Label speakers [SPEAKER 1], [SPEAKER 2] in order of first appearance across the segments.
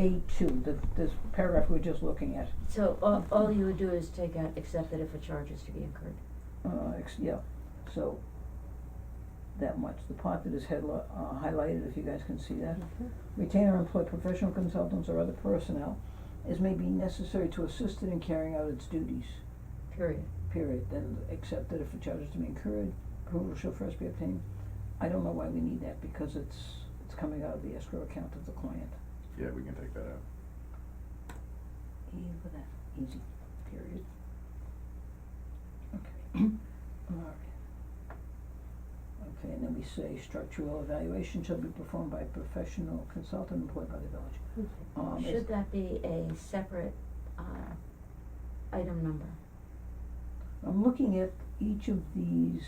[SPEAKER 1] A two, the, this paragraph we we're just looking at,
[SPEAKER 2] So all, all you would do is take out, except that if a charge is to be incurred.
[SPEAKER 1] uh, ex- yeah, so that much, the part that is headli- uh, highlighted, if you guys can see that.
[SPEAKER 2] Mm-hmm.
[SPEAKER 1] Retain or employ professional consultants or other personnel as may be necessary to assist it in carrying out its duties,
[SPEAKER 2] Period.
[SPEAKER 1] period, then except that if a charge is to be incurred, approval shall first be obtained. I don't know why we need that, because it's, it's coming out of the escrow account of the client,
[SPEAKER 3] Yeah, we can take that out.
[SPEAKER 1] easy, period. Okay, alright. Okay, and then we say structural evaluation shall be performed by a professional consultant employed by the village. Um, is-
[SPEAKER 2] Should that be a separate, uh, item number?
[SPEAKER 1] I'm looking at each of these,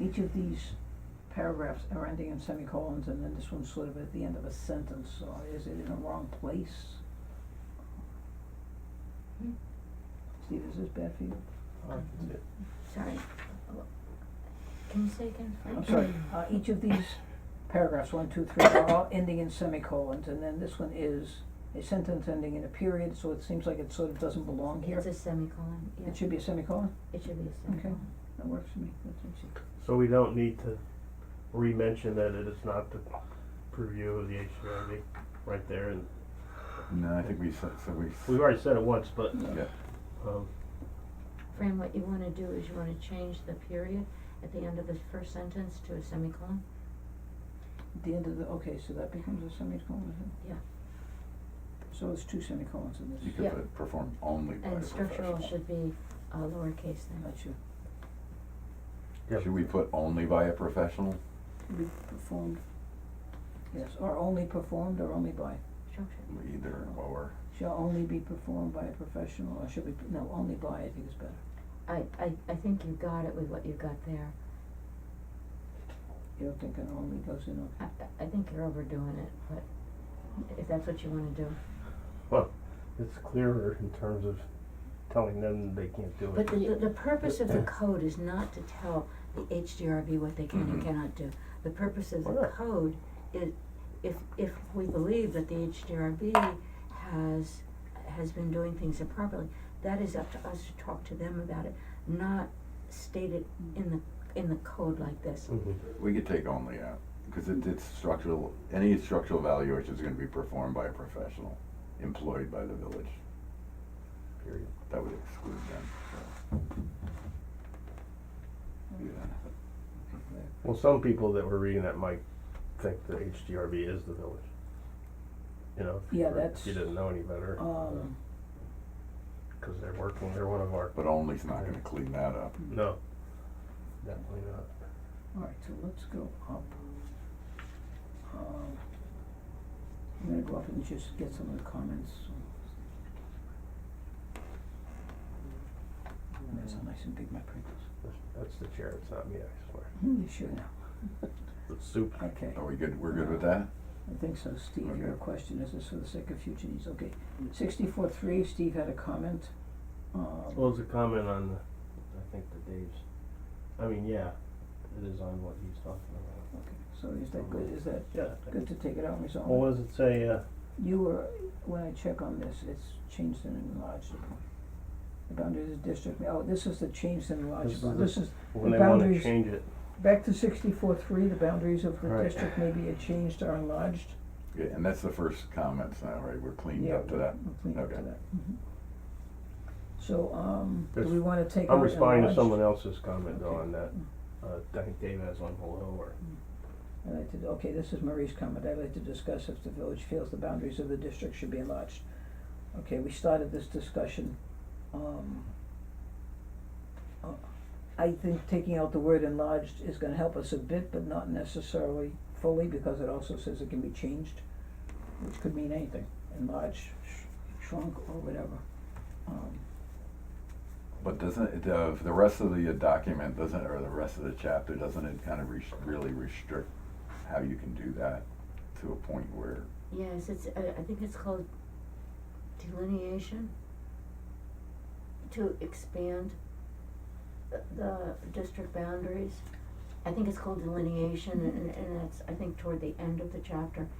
[SPEAKER 1] each of these paragraphs are ending in semicolons, and then this one's sort of at the end of a sentence, so is it in the wrong place?
[SPEAKER 2] Hmm.
[SPEAKER 1] Steve, is this bad for you?
[SPEAKER 2] Sorry. Can you say again?
[SPEAKER 1] I'm sorry, uh, each of these paragraphs, one, two, three, are all ending in semicolons, and then this one is a sentence ending in a period, so it seems like it sort of doesn't belong Uh, here.
[SPEAKER 2] It's a semicolon, yeah.
[SPEAKER 1] It should be a semicolon,
[SPEAKER 2] It should be a semicolon.
[SPEAKER 1] that works for me, that's easy.
[SPEAKER 4] So we don't need to re-mention that it is not the purview of the HCRB, right there, and
[SPEAKER 3] No, I think we said, so we.
[SPEAKER 4] we've already said it once, but,
[SPEAKER 3] Yeah,
[SPEAKER 4] um,
[SPEAKER 2] Fran, what you wanna do is you wanna change the period at the end of the first sentence to a semicolon?
[SPEAKER 1] At The end of the, okay, so that becomes a semicolon, is it?
[SPEAKER 2] Yeah.
[SPEAKER 1] So it's two semicolons in
[SPEAKER 3] you
[SPEAKER 1] this,
[SPEAKER 2] Yeah.
[SPEAKER 3] could put performed only by a
[SPEAKER 2] And
[SPEAKER 3] professional.
[SPEAKER 2] structural should be, uh, lowercase then.
[SPEAKER 1] that should
[SPEAKER 4] yeah,
[SPEAKER 3] Should we put only by a professional?
[SPEAKER 1] be performed, yes, or only performed or only by,
[SPEAKER 2] Structure.
[SPEAKER 3] Either or.
[SPEAKER 1] shall only be performed by a professional, or should be, no, only by, I think is better.
[SPEAKER 2] I, I, I think you got it with what you got there.
[SPEAKER 1] You don't think an only goes in, okay?
[SPEAKER 2] I, I- I think you're overdoing it, but if that's what you wanna do.
[SPEAKER 4] well, it's clearer in terms of telling them they can't do
[SPEAKER 2] But
[SPEAKER 4] it.
[SPEAKER 2] the, the, the purpose of the code is not to tell the HDRB what they can and
[SPEAKER 3] Mhm.
[SPEAKER 2] cannot do. The purpose of
[SPEAKER 4] Mm-hmm. Why
[SPEAKER 2] the
[SPEAKER 4] not?
[SPEAKER 2] code is, if, if we believe that the HDRB has, has been doing things improperly, that is up to us to talk to them about it, not state it in the, in the code like this.
[SPEAKER 4] Mhm.
[SPEAKER 3] We could take only out, because it, it's structural, any structural evaluation is gonna be performed by a professional employed by the village.
[SPEAKER 4] Period.
[SPEAKER 3] That would exclude them, so. Yeah.
[SPEAKER 4] Well, some people that were reading that might think the HDRB is the village. You know, if you
[SPEAKER 1] Yeah,
[SPEAKER 4] were-
[SPEAKER 1] that's-
[SPEAKER 4] if you didn't know any better,
[SPEAKER 1] Um,
[SPEAKER 4] because they're working, they're one of our,
[SPEAKER 3] But only's not gonna clean that up.
[SPEAKER 1] Hmm.
[SPEAKER 4] no, definitely not.
[SPEAKER 1] alright, so let's go up. Um, I'm gonna go up and just get some of the comments. That's how nice and big my print is. Hmm,
[SPEAKER 4] That's- That's the chair, it's not me, I swear.
[SPEAKER 1] You sure now?
[SPEAKER 4] The soup.
[SPEAKER 1] Okay,
[SPEAKER 3] Are we good, we're good with that?
[SPEAKER 1] I think so, Steve, your
[SPEAKER 3] Okay.
[SPEAKER 1] question is this for the sake of future needs, okay. Sixty-four three, Steve had a comment, um,
[SPEAKER 4] Well, it's a comment on, the- I think, the Dave's, I mean, yeah, it is on what he's talking about.
[SPEAKER 1] so is that good, is that
[SPEAKER 4] Yeah.
[SPEAKER 1] good to take it out and resolve?
[SPEAKER 4] Well, what does it say, uh,
[SPEAKER 1] You were, when I check on this, it's changed and enlarged upon. The boundaries of the district, oh, this is the changed and enlarged
[SPEAKER 4] This
[SPEAKER 1] upon,
[SPEAKER 4] is
[SPEAKER 1] this
[SPEAKER 4] the-
[SPEAKER 1] is, The
[SPEAKER 4] when they wanna
[SPEAKER 1] boundaries-
[SPEAKER 4] change it?
[SPEAKER 1] back to sixty-four three, the boundaries of the
[SPEAKER 4] Right.
[SPEAKER 1] district may be changed or enlarged.
[SPEAKER 3] Yeah, and that's the first comments now, right, we're cleaned
[SPEAKER 1] Yeah,
[SPEAKER 3] up to that.
[SPEAKER 1] we'll clean up to
[SPEAKER 3] Okay.
[SPEAKER 1] that, mhm. So, um, do
[SPEAKER 4] There's-
[SPEAKER 1] we wanna take out
[SPEAKER 4] I'm responding to
[SPEAKER 1] enlarged?
[SPEAKER 4] someone else's comment though
[SPEAKER 1] Okay.
[SPEAKER 4] on that, uh, I think Dave has on below or,
[SPEAKER 1] I'd like to, okay, this is Marie's comment, I'd like to discuss if the village feels the boundaries of the district should be enlarged. Okay, we started this discussion, um, uh, I think taking out the word enlarged is gonna help us a bit, but not necessarily fully, because it also says it can be changed, which could mean anything, enlarged, sh- shrunk, or whatever. Um,
[SPEAKER 3] But doesn't, it, uh, the rest of the document doesn't, or the rest of the chapter, doesn't it kind of res- really restrict how you can do that to a point where,
[SPEAKER 2] Yes, it's, uh, I, I think it's called delineation. To expand the, the district boundaries. I think it's called delineation and, and that's, I think, toward the end of the chapter.